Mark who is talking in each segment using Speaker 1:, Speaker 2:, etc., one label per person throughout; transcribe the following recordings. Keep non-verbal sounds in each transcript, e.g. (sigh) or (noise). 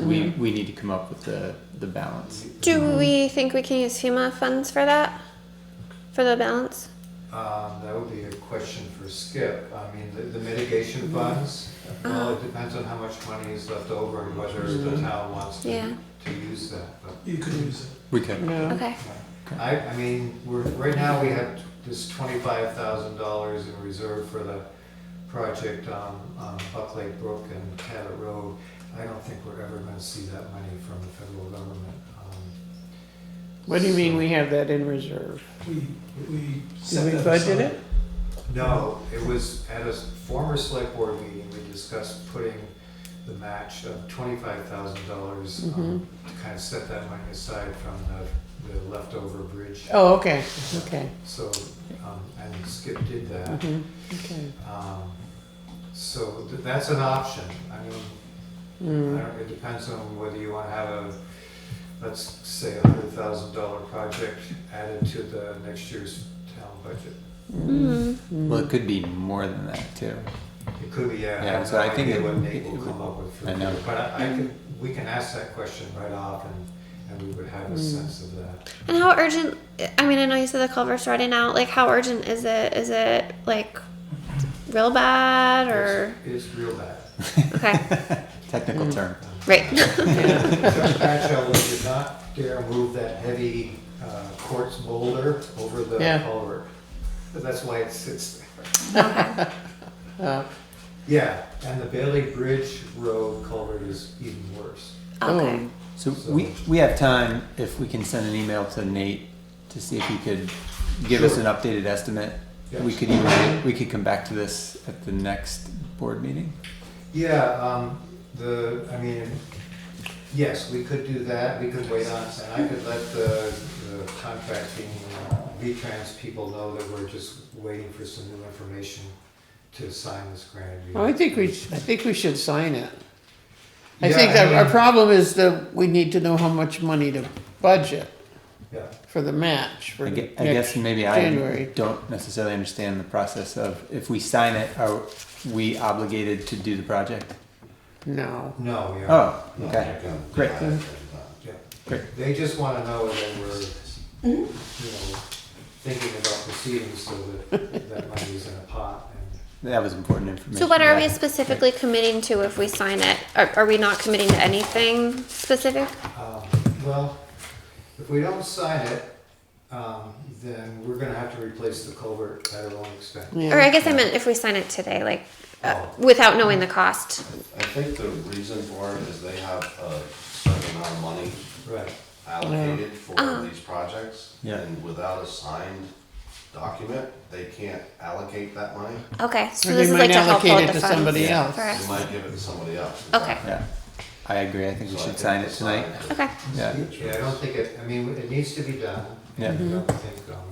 Speaker 1: we,
Speaker 2: Yeah.
Speaker 1: we need to come up with the, the balance.
Speaker 3: Do we think we can use FEMA funds for that? For the balance?
Speaker 4: Um, that would be a question for Skip. I mean, the, the mitigation funds,
Speaker 3: Uh-huh.
Speaker 4: well, it depends on how much money is left over and whether the town wants
Speaker 3: Mm-hmm. Yeah.
Speaker 4: to, to use that, but.
Speaker 5: You could use it.
Speaker 1: We could.
Speaker 2: Yeah.
Speaker 3: Okay.
Speaker 4: I, I mean, we're, right now, we have this twenty-five thousand dollars in reserve for the project on, on Buck Lake Brook and Cabot Road. I don't think we're ever gonna see that money from the federal government. Um,
Speaker 2: What do you mean we have that in reserve?
Speaker 5: We, we
Speaker 2: Did
Speaker 5: set
Speaker 2: we
Speaker 5: that
Speaker 2: budget
Speaker 5: aside.
Speaker 2: it?
Speaker 4: No, it was at a former select board meeting, we discussed putting the match of twenty-five thousand dollars um,
Speaker 2: Mhm.
Speaker 4: to kind of set that money aside from the, the leftover bridge.
Speaker 2: Oh, okay, okay.
Speaker 4: So, um, and Skip did that.
Speaker 2: mhm, okay.
Speaker 4: Um, So th- that's an option. I mean, I
Speaker 2: Mm,
Speaker 4: don't, it depends on whether you want to have a, let's say, a hundred thousand dollar project added to the next year's town budget.
Speaker 2: Mm-hmm.
Speaker 3: Mm.
Speaker 1: Well, it could be more than that too.
Speaker 4: It could be, yeah.
Speaker 1: Yeah,
Speaker 4: have
Speaker 1: so
Speaker 4: no
Speaker 1: I think
Speaker 4: idea
Speaker 1: it-
Speaker 4: What Nate
Speaker 1: it
Speaker 4: will
Speaker 1: would-
Speaker 4: come up with. for
Speaker 1: I know.
Speaker 4: you, But I I can, we can ask that question right off and, and we would have a sense of that.
Speaker 3: And how urgent? I mean, I know you said the culvert's running out. Like, how urgent is it? Is it like real bad
Speaker 2: (laughs)
Speaker 3: or
Speaker 4: It's it's real bad.
Speaker 3: okay?
Speaker 1: Technical term.
Speaker 2: (laughs)
Speaker 3: Right.
Speaker 4: Judge Patcho, we did not dare move that heavy uh, quartz boulder over the
Speaker 2: Yeah.
Speaker 4: culvert. That's why it sits there.
Speaker 2: uh,
Speaker 4: (laughs) Yeah, and the Bailey Bridge Road culvert is even worse.
Speaker 3: Okay.
Speaker 2: oh,
Speaker 1: So we, we have time if we can send an email to Nate to see if he could give us an updated estimate.
Speaker 4: Yeah.
Speaker 1: We could even, we could come back to this at the next board meeting.
Speaker 4: Yeah, um, the, I mean, yes, we could do that, we could wait on, and I could let the, the contracting, V-Trans people know that we're just waiting for some new information to sign this grant.
Speaker 2: well, I think we, sh- I think we should sign it. I
Speaker 4: Yeah,
Speaker 2: think that our
Speaker 4: mean,
Speaker 2: problem is that we need to know how much money to budget
Speaker 4: Yeah.
Speaker 2: for the match for
Speaker 1: I gue-
Speaker 2: next
Speaker 1: I guess maybe I
Speaker 2: January.
Speaker 1: don't necessarily understand the process of if we sign it, are we obligated to do the project?
Speaker 2: No,
Speaker 4: No, yeah.
Speaker 1: Oh, okay, great.
Speaker 4: Yeah.
Speaker 1: Great.
Speaker 4: They just wanna know that we're,
Speaker 2: Mm-hmm.
Speaker 4: you know, thinking about proceeding so that that money is in a pot and.
Speaker 1: That was important information.
Speaker 3: So, what are we
Speaker 1: Yeah.
Speaker 3: specifically committing to if we sign it? Are, are we not committing to anything specific?
Speaker 4: Um, Well, if we don't sign it, um, then we're gonna have to replace the culvert at our own expense.
Speaker 2: yeah.
Speaker 3: Or I guess I meant if we sign it today, like uh,
Speaker 6: Oh.
Speaker 3: without knowing the cost.
Speaker 6: I think the reason for it is they have a certain amount of money
Speaker 4: Right,
Speaker 6: allocated for these projects.
Speaker 1: Yeah.
Speaker 6: And without a signed document, they can't allocate that money.
Speaker 3: Okay. So
Speaker 2: Or
Speaker 3: this
Speaker 2: they
Speaker 3: is
Speaker 2: might
Speaker 3: like to help
Speaker 2: allocate
Speaker 3: out
Speaker 2: it
Speaker 3: the
Speaker 2: to
Speaker 3: funds.
Speaker 2: somebody else.
Speaker 3: For
Speaker 6: They
Speaker 3: us.
Speaker 6: might give it to somebody else.
Speaker 3: Okay.
Speaker 1: Yeah, I agree. I think we
Speaker 6: So I
Speaker 1: should
Speaker 6: think
Speaker 1: sign
Speaker 6: they
Speaker 1: it tonight.
Speaker 6: signed
Speaker 3: Okay.
Speaker 1: Yeah,
Speaker 4: yeah, I don't think it, I mean, it needs to be done.
Speaker 1: Yeah.
Speaker 4: And I don't think, um,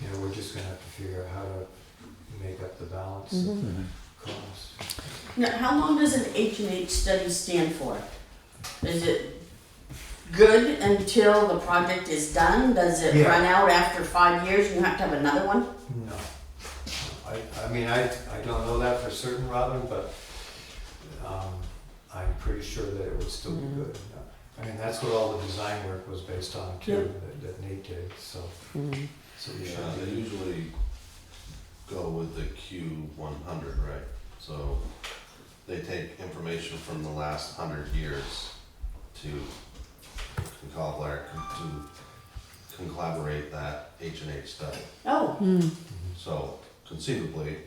Speaker 4: you know, we're just gonna have to figure out how to make up the balance of
Speaker 1: Mhm.
Speaker 4: costs.
Speaker 7: Now, how long does an H and H study stand for? Is it good until the project is done? Does it
Speaker 4: Yeah.
Speaker 7: run out after five years and you have to have another one?
Speaker 4: No. I, I mean, I, I don't know that for certain, Robin, but, um, I'm pretty sure that it would still be good. I mean, that's what all the design work was based on too, that- that Nate did, so,
Speaker 2: Mm.
Speaker 4: so we
Speaker 6: Yeah,
Speaker 4: should
Speaker 6: they
Speaker 4: be.
Speaker 6: usually go with the Q one hundred, right? So they take information from the last hundred years to concollate, to collaborate that H and H study.
Speaker 7: Oh,
Speaker 2: Mm.
Speaker 4: Mm-hmm.
Speaker 6: So conceivably,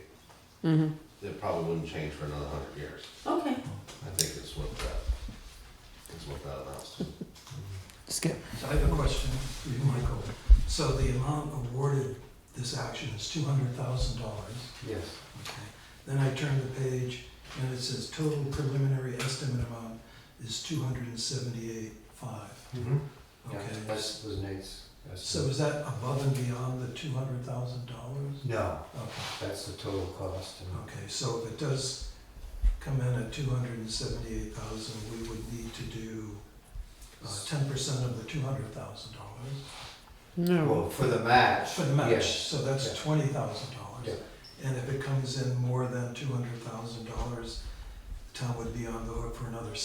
Speaker 2: Mhm.
Speaker 6: it probably wouldn't change for another hundred years.
Speaker 7: okay.
Speaker 6: I think is what that, is what that amounts to.
Speaker 2: Skip.
Speaker 5: So I have a question for you, Michael. So the amount awarded this action is two hundred thousand dollars.
Speaker 4: Yes,
Speaker 5: Then I turn the page and it says total preliminary estimate amount is two hundred and seventy-eight five.
Speaker 4: mhm, yeah,
Speaker 5: Mm-hmm. Okay,
Speaker 4: that's, was Nate's. that's-
Speaker 5: so is that above and beyond the two hundred thousand dollars?
Speaker 4: No,
Speaker 5: Okay,
Speaker 4: that's the total cost and,
Speaker 5: okay, so if it does come in at two hundred and seventy-eight thousand, we would need to do uh, ten percent of the two hundred thousand dollars.
Speaker 2: No.
Speaker 4: well, for the match.
Speaker 5: For the match,
Speaker 4: yes,
Speaker 5: so that's
Speaker 4: yeah.
Speaker 5: twenty thousand
Speaker 4: Yeah.
Speaker 5: dollars. And if it comes in more than two hundred thousand dollars, the town would be on the hook for another